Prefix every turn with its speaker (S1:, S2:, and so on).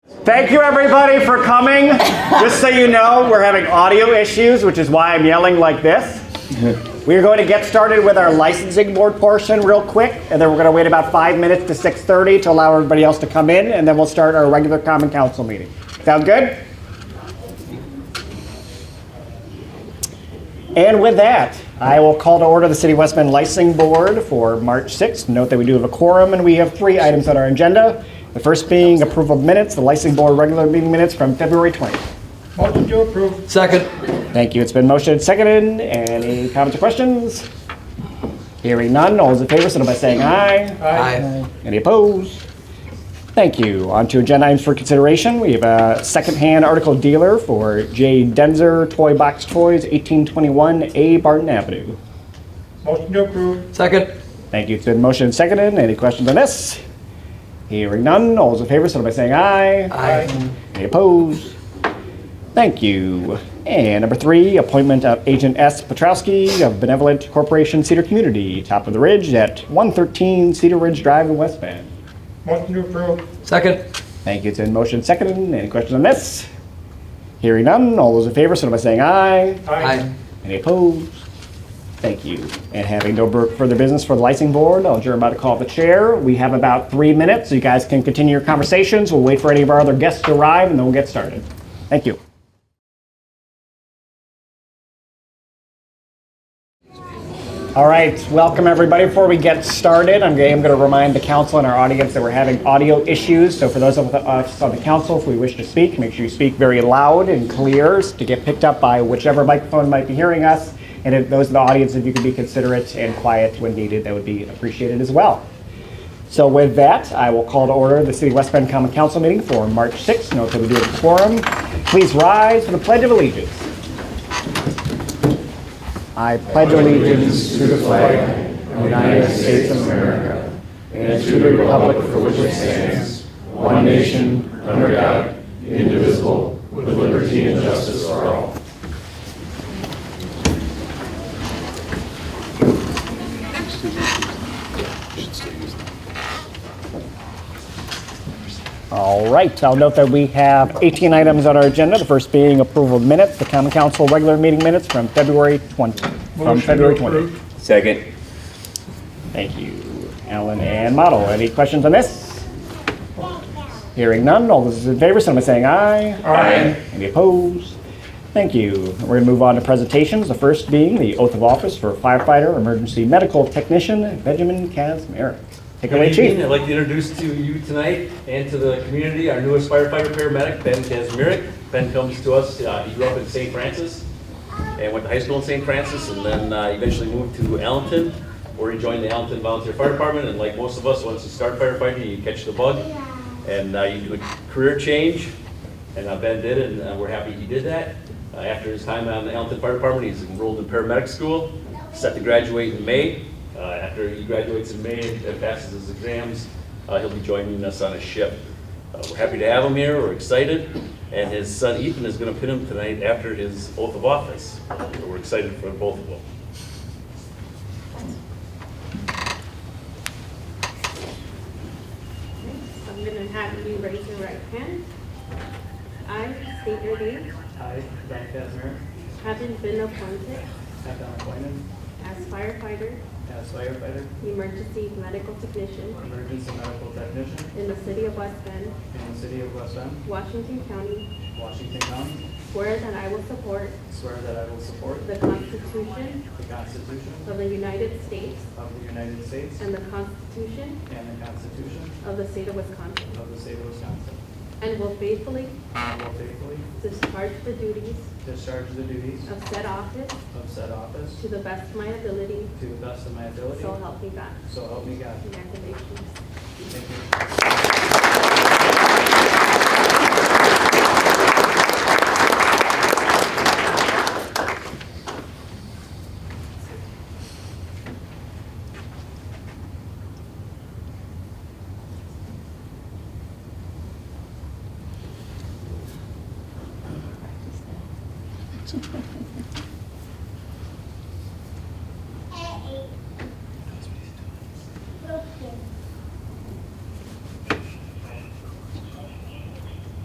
S1: Thank you, everybody, for coming. Just so you know, we're having audio issues, which is why I'm yelling like this. We're going to get started with our licensing board portion real quick, and then we're going to wait about five minutes to 6:30 to allow everybody else to come in, and then we'll start our regular common council meeting. Sound good? And with that, I will call to order the City of West Bend Licensing Board for March 6th. Note that we do have a quorum, and we have three items on our agenda. The first being approval of minutes, the Licensing Board regular meeting minutes from February 20th.
S2: Motion to approve.
S3: Second.
S1: Thank you. It's been motioned and seconded. Any comments or questions? Hearing none, all those in favor, signify by saying aye.
S3: Aye.
S1: Any opposed? Thank you. On to agenda items for consideration. We have a secondhand article dealer for J. Denzer Toy Box Toys, 1821 A Barton Avenue.
S2: Motion to approve.
S3: Second.
S1: Thank you. It's been motioned and seconded. Any questions on this? Hearing none, all those in favor, signify by saying aye.
S3: Aye.
S1: Any opposed? Thank you. And number three, appointment of Agent S. Petrowski of Benevolent Corporation Cedar Community, top of the ridge at 113 Cedar Ridge Drive in West Bend.
S2: Motion to approve.
S3: Second.
S1: Thank you. It's in motion seconded. Any questions on this? Hearing none, all those in favor, signify by saying aye.
S3: Aye.
S1: Any opposed? Thank you. And having no bur- further business for the licensing board, I'll adjourn by the call of the chair. We have about three minutes, so you guys can continue your conversations. We'll wait for any of our other guests to arrive, and then we'll get started. Thank you. All right, welcome everybody. Before we get started, I'm going to remind the council and our audience that we're having audio issues. So for those of us on the council, if we wish to speak, make sure you speak very loud and clear to get picked up by whichever microphone might be hearing us. And if those in the audience, if you could be considerate and quiet when needed, that would be appreciated as well. So with that, I will call to order the City of West Bend Common Council meeting for March 6th. Note that we do have a quorum. Please rise for the Pledge of Allegiance. I pledge allegiance to the flag
S4: United States of America, and to the republic for which it stands, one nation, under God, indivisible, with liberty and justice for all.
S1: All right, I'll note that we have 18 items on our agenda, the first being approval of minutes, the common council regular meeting minutes from February 20. From
S2: Motion
S1: February
S2: to
S1: 20.
S2: approve.
S5: Second.
S1: Thank you, Alan and Model. Any questions on this? Hearing none, all those in favor, signify by saying aye.
S5: Aye.
S1: Any opposed? Thank you. We're going to move on to presentations, the first being the oath of office for firefighter, emergency medical technician Benjamin Kazmarek. Take it away,
S6: Good evening.
S1: Chief.
S6: I'd like to introduce to you tonight and to the community our newest firefighter paramedic, Ben Kazmirik. Ben comes to us, uh, he grew up in St. Francis and went to high school in St. Francis and then uh, eventually moved to Allenton, where he joined the Allenton Volunteer Fire Department. And like most of us, once you start firefighting, you catch the bug and uh, you do a career change. And uh, Ben did, it, and uh, we're happy he did that. Uh, After his time on the Allenton Fire Department, he's enrolled in paramedic school, set to graduate in May. Uh, After he graduates in May and passes his exams, uh, he'll be joining us on a ship. Uh, We're happy to have him here, we're excited, and his son Ethan is going to pin him tonight after his oath of office. So We're excited for both of them.
S7: I'm gonna have you raise your right hand. I state your name,
S8: I, Zach Kazner,
S7: having been appointed
S8: have been appointed
S7: as firefighter,
S8: as firefighter,
S7: emergency medical technician
S8: emergency medical technician
S7: in the city of West Bend,
S8: in the city of West End,
S7: Washington County,
S8: Washington County,
S7: swear that I will support
S8: swear that I will support
S7: the Constitution
S8: the Constitution
S7: of the United States
S8: of the United States
S7: and the Constitution
S8: and the Constitution
S7: of the state of Wisconsin,
S8: of the state of Wisconsin,
S7: and will faithfully
S8: and will faithfully
S7: discharge the duties
S8: discharge the duties
S7: of said office
S8: of said office
S7: to the best of my ability,
S8: to the best of my ability,
S7: so help me God.
S8: so help me God.
S7: Congratulations.
S8: Thank you.